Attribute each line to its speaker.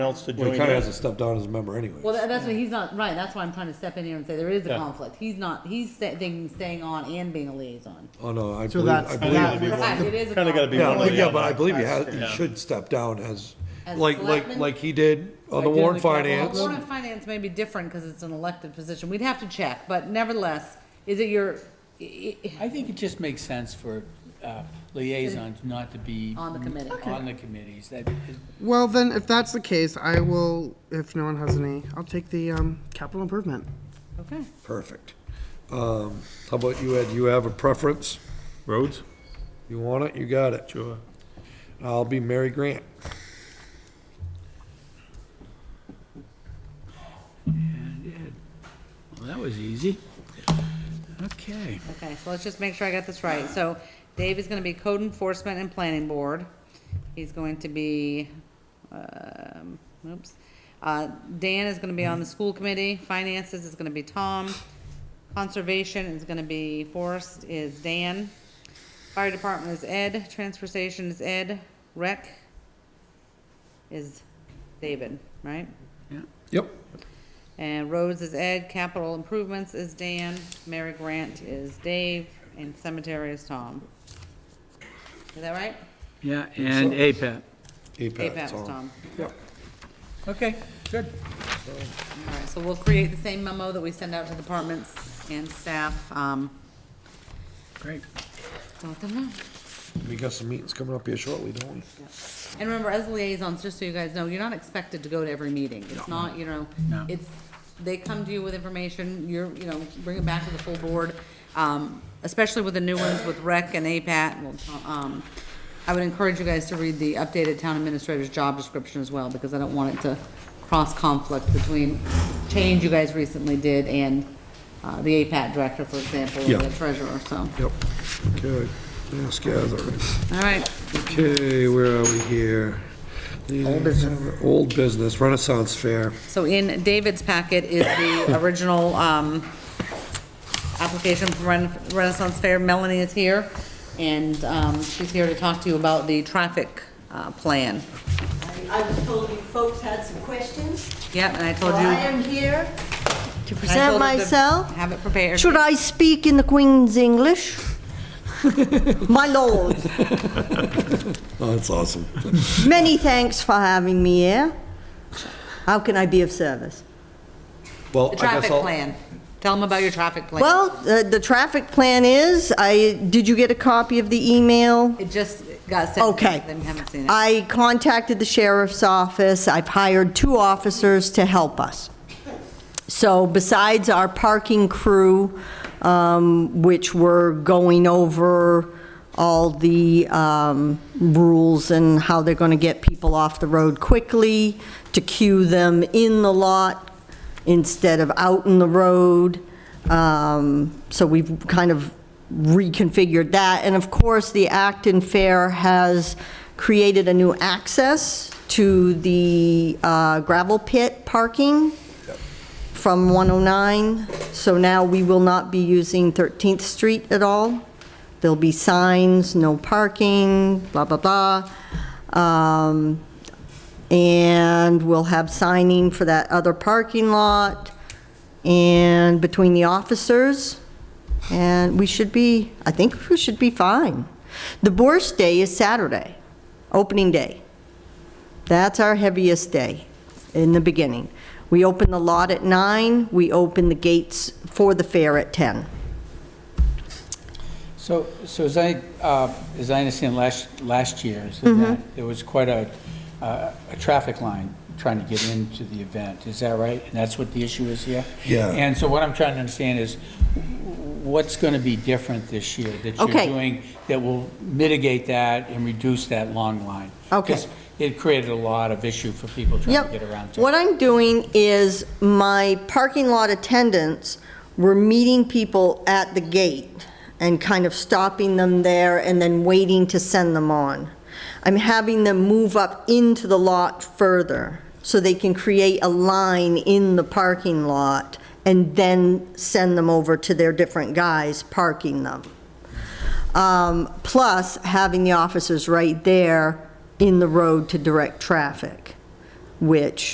Speaker 1: else to
Speaker 2: Well,
Speaker 1: doing
Speaker 2: he kinda
Speaker 1: that.
Speaker 2: hasn't stepped down as a member anyway.
Speaker 3: Well, tha- that's what he's not, right, that's why I'm trying to step in here and say there is a
Speaker 1: Yeah.
Speaker 3: conflict. He's not, he's sta- thinking staying on and being a liaison.
Speaker 2: Oh, no, I
Speaker 4: So
Speaker 2: believe,
Speaker 4: that's,
Speaker 2: I believe.
Speaker 4: that
Speaker 1: believe it.
Speaker 4: was-
Speaker 3: Right, it is a
Speaker 1: Kinda gotta be
Speaker 2: Yeah,
Speaker 1: one or
Speaker 2: like,
Speaker 1: the
Speaker 2: yeah,
Speaker 1: other.
Speaker 2: but I believe he has, he
Speaker 1: Yeah.
Speaker 2: should step down as,
Speaker 3: As
Speaker 2: like, like,
Speaker 3: selectman?
Speaker 2: like he did on
Speaker 5: Right,
Speaker 2: the warrant
Speaker 5: didn't the couple-
Speaker 2: finance.
Speaker 3: Board of Finance may be different because it's an elected position. We'd have to check, but nevertheless, is it your, i- i-
Speaker 5: I think it just makes sense for uh, liaisons not to be.
Speaker 3: On the committee. Okay.
Speaker 5: On the committees, that,
Speaker 4: well, then, if that's the case, I will, if no one has any, I'll take the, um, capital improvement.
Speaker 3: okay.
Speaker 2: Perfect. Um, how about you, Ed? You have a preference?
Speaker 1: Roads?
Speaker 2: You want it? You got it.
Speaker 1: Sure.
Speaker 2: I'll be Mary Grant.
Speaker 5: well, that was easy. Okay.
Speaker 3: Okay, so let's just make sure I got this right. So Dave is gonna be code enforcement and planning board. He's going to be, um, oops. Uh, Dan is gonna be on the school committee, finances is gonna be Tom, conservation is gonna be, forest is Dan, fire department is Ed, transfer station is Ed, rec is David, right?
Speaker 2: Yep.
Speaker 3: And roads is Ed, capital improvements is Dan, Mary Grant is Dave, and cemetery is Tom. Is that right?
Speaker 5: Yeah, and E APAP.
Speaker 3: APAP
Speaker 2: APAT's
Speaker 3: is
Speaker 2: on.
Speaker 3: Tom.
Speaker 5: Okay, good.
Speaker 3: All right, so we'll create the same memo that we send out to departments and staff, um,
Speaker 5: Great.
Speaker 3: to let them know.
Speaker 2: We got some meetings coming up here shortly, don't we?
Speaker 3: And remember, as liaisons, just so you guys know, you're not expected to go to every meeting. It's not, you know,
Speaker 5: No.
Speaker 3: it's, they come to you with information, you're, you know, bring it back to the full board. Um, especially with the new ones with rec and APAT, well, um, I would encourage you guys to read the updated town administrator's job description as well, because I don't want it to cross conflict between change you guys recently did and, uh, the APAT director, for example,
Speaker 2: Yeah.
Speaker 3: or the treasurer, so.
Speaker 2: Yep. Okay, mass gathering.
Speaker 3: All right,
Speaker 2: Okay, where are we here? Old business. Old business, Renaissance Fair.
Speaker 3: So in David's packet is the original um, application for Ren- Renaissance Fair. Melanie is here, and um, she's here to talk to you about the traffic uh, plan.
Speaker 6: I was told you folks had some questions,
Speaker 3: Yep, and I
Speaker 6: so
Speaker 3: told you.
Speaker 6: I
Speaker 3: and
Speaker 6: am here to
Speaker 3: I told
Speaker 6: present
Speaker 3: her to
Speaker 6: myself.
Speaker 3: Have it prepared.
Speaker 6: Should I speak in the Queen's English? My lord,
Speaker 2: Oh, that's awesome.
Speaker 6: many thanks for having me here. How can I be of service?
Speaker 2: Well,
Speaker 3: The
Speaker 2: I guess
Speaker 3: traffic
Speaker 2: I'll-
Speaker 3: plan. Tell them about your traffic plan.
Speaker 6: Well, the, the traffic plan is, I, did you get a copy of the email?
Speaker 3: It just got sent.
Speaker 6: Okay.
Speaker 3: They haven't seen it.
Speaker 6: I contacted the sheriff's office. I've hired two officers to help us. So besides our parking crew, um, which were going over all the um, rules and how they're going to get people off the road quickly, to queue them in the lot instead of out in the road. Um, So we've kind of reconfigured that. And of course, the Acton Fair has created a new access to the uh, gravel pit parking from 109, so now we will not be using 13th Street at all. There'll be signs, no parking, blah, blah, blah. Um, And we'll have signing for that other parking lot and between the officers. And we should be, I think we should be fine. The worst day is Saturday, opening day. That's our heaviest day in the beginning. We open the lot at nine, we open the gates for the fair at 10.
Speaker 5: So, so as I, uh, as I understand, last, last year, is
Speaker 6: Mm-hmm.
Speaker 5: the event, there was quite a, uh, a traffic line trying to get into the event, is that right? And that's what the issue is here?
Speaker 2: Yeah.
Speaker 5: And so what I'm trying to understand is, what's going to be different this year that you're
Speaker 6: Okay.
Speaker 5: doing that will mitigate that and reduce that long line?
Speaker 6: Okay.
Speaker 5: 'Cause It created a lot of issue for people trying to
Speaker 6: Yep.
Speaker 5: get around.
Speaker 6: What I'm doing is my parking lot attendants were meeting people at the gate and kind of stopping them there and then waiting to send them on. I'm having them move up into the lot further so they can create a line in the parking lot and then send them over to their different guys parking them. Um, Plus, having the officers right there in the road to direct traffic. which